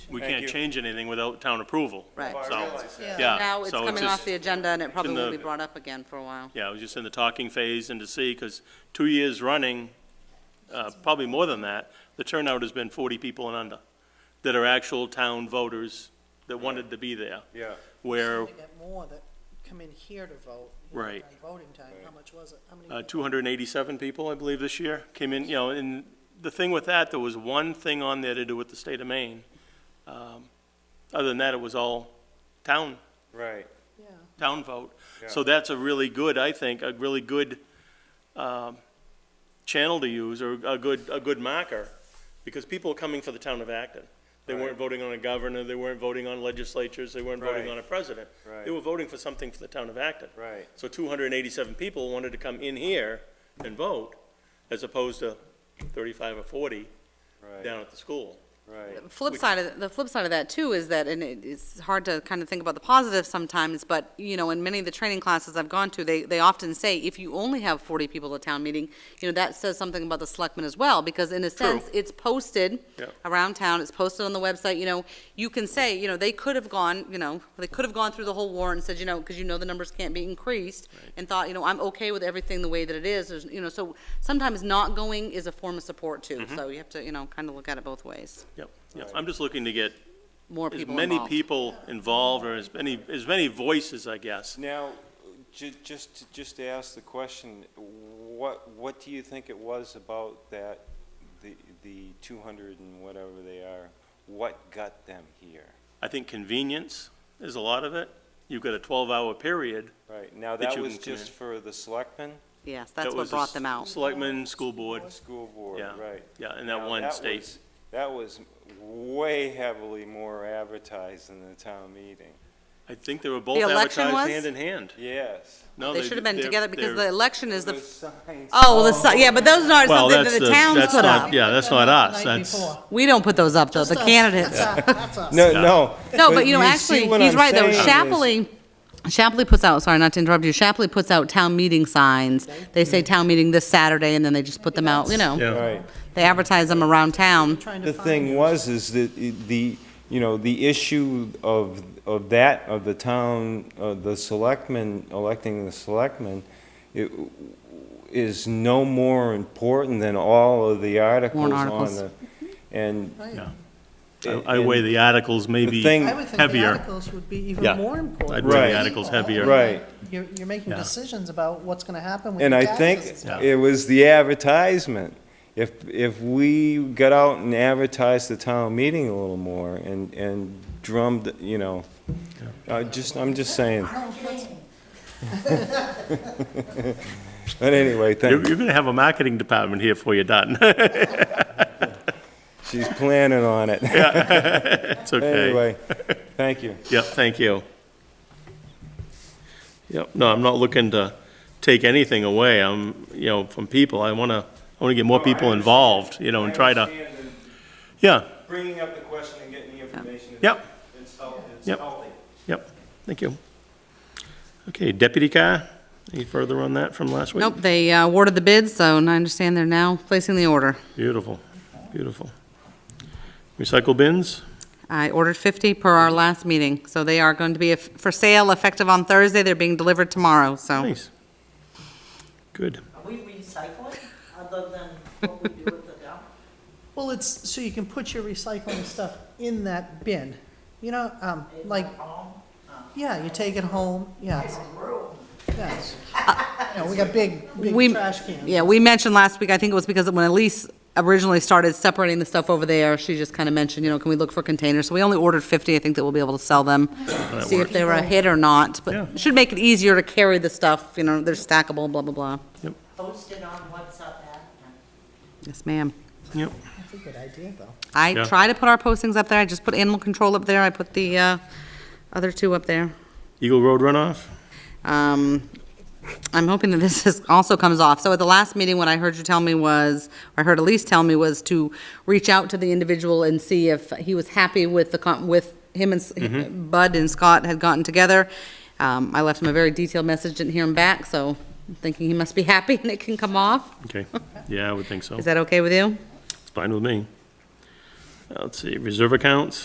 we Thank can't you. change anything without town approval. Right. I So- realize that. Yeah, Now it's so it's coming just- off the agenda and it probably in the- will be brought up again for a while. Yeah, I was just in the talking phase and to see, because two years running, uh, probably more than that, the turnout has been 40 people and under that are actual town voters that wanted to be there. Yeah. Where They got more that come in here to vote. you know, Right. on Voting time, how much was it? How many? uh, people? 287 people, I believe, this year came in, you know, and the thing with that, there was one thing on there to do with the state of Maine. Um, Other than that, it was all town Right. Yeah, town vote. So Yeah. that's a really good, I think, a really good um, channel to use, or a good, a good marker, because people are coming for the town of Acton. They Right. weren't voting on a governor, they weren't voting on legislatures, they weren't voting Right. on a president. Right. They were voting for something for the town of Acton. Right. So 287 people wanted to come in here and vote, as opposed to 35 or 40 Right. down at the school. Right. The Flip side of, the flip side of that too is that, and it- it's hard to kind of think about the positive sometimes, but, you know, in many of the training classes I've gone to, they, they often say, if you only have forty people at town meeting, you know, that says something about the selectmen as well, because in a True. sense, it's posted Yeah. around town, it's posted on the website, you know, you can say, you know, they could have gone, you know, they could have gone through the whole warrant and said, you know, because you know the numbers can't be increased, and thought, you know, I'm okay with everything the way that it is, there's, you know, so sometimes not going is a form of support too, Mm-hmm. so you have to, you know, kind of look at it both ways Yep, yep. Um, I'm just looking to get more as people many involved. people involved, or as many, as many voices, I guess. Now, ju- just, to- just to ask the question, what, what do you think it was about that, the, the two hundred and whatever they are, what got them here? I think convenience is a lot of it. You've got a 12-hour period. Right, now That that you was can come just in. for the selectmen, Yes, That that's what was the brought them out. Selectmen, school board, school board, Yeah. right? yeah, and Now, that one was- state. That was way heavily more advertised than the town meeting, I think they were both election advertised was? hand in hand. yes. No, They should have been they're- together because the they're- election is the, The f- signs. oh, the, si- yeah, but those aren't Well, something that that's the the- towns that's put not- up. yeah, that's not us, The night that's- before. We don't put those up, though, uh, the That's us. candidates. That's us. That's us. No, no. No, but you know, see actually, what he's I'm right, though, saying is- Shapley, Shapley puts out, sorry, not to interrupt you, Shapley puts out town meeting signs. They say town meeting this Saturday, and then they just put them out, you know, Right. they advertise them around town. Trying to The find thing you. was, is that it- the, you know, the issue of, of that, of the town, of the selectmen, electing the selectmen, it is no more important than all of the articles on articles. the, and. Right. Yeah. and- I I weigh the articles maybe The thing- I would think the heavier. articles would be Yeah. even more I'd important. weigh the People. articles heavier. Right. You're, you're making Yeah. decisions about what's gonna happen with And your I think taxes. Yeah. it was the advertisement. If, if we got out and advertised the town meeting a little more and, and drummed, you know, I just, I'm just saying. But anyway, You're thank, going to have a marketing department here before you're done. she's planning on it. It's okay. Anyway, thank you. Yep, thank you. Yep, no, I'm not looking to take anything away, I'm, you know, from people, I want to, I want to get more people involved, you know, and try to, yeah, Bringing up the question and getting the information. Yep. It's healthy. Yep. yep, thank you. Okay, deputy car, any further on that from last week? Nope, they uh, awarded the bids, so I understand they're now placing the order. Beautiful, beautiful. Recycle bins, I ordered 50 per our last meeting, so they are going to be eff- for sale effective on Thursday. They're being delivered tomorrow, so. nice. Good, Are we recycling other than what we do with the dump? Well, it's, so you can put your recycling stuff in that bin, you know, um, like, Home? Uh-huh. yeah, you take it home, yes, Room. yes. You know, we got big, We- big trash cans. Yeah, we mentioned last week, I think it was because when Elise originally started separating the stuff over there, she just kind of mentioned, you know, can we look for containers? So we only ordered 50. I think that we'll be able to sell them, see if they were a hit or not. Yeah. But it should make it easier to carry the stuff, you know, they're stackable, blah, blah, blah. Posted on what's up that. Yes, ma'am. yep, That's a good idea, though. I Yeah. try to put our postings up there. I just put animal control up there. I put the uh, other two up there. Eagle Road runoff? Um, I'm hoping that this is, also comes off. So at the last meeting, what I heard you tell me was, or I heard Elise tell me was to reach out to the individual and see if he was happy with the, con- with him and, s- Bud and Scott had gotten together. Um, I left him a very detailed message, didn't hear him back, so I'm thinking he must be happy and it can come off. Okay, yeah, I would think so, Is that okay with you? it's fine with me. Uh, Let's see, reserve accounts?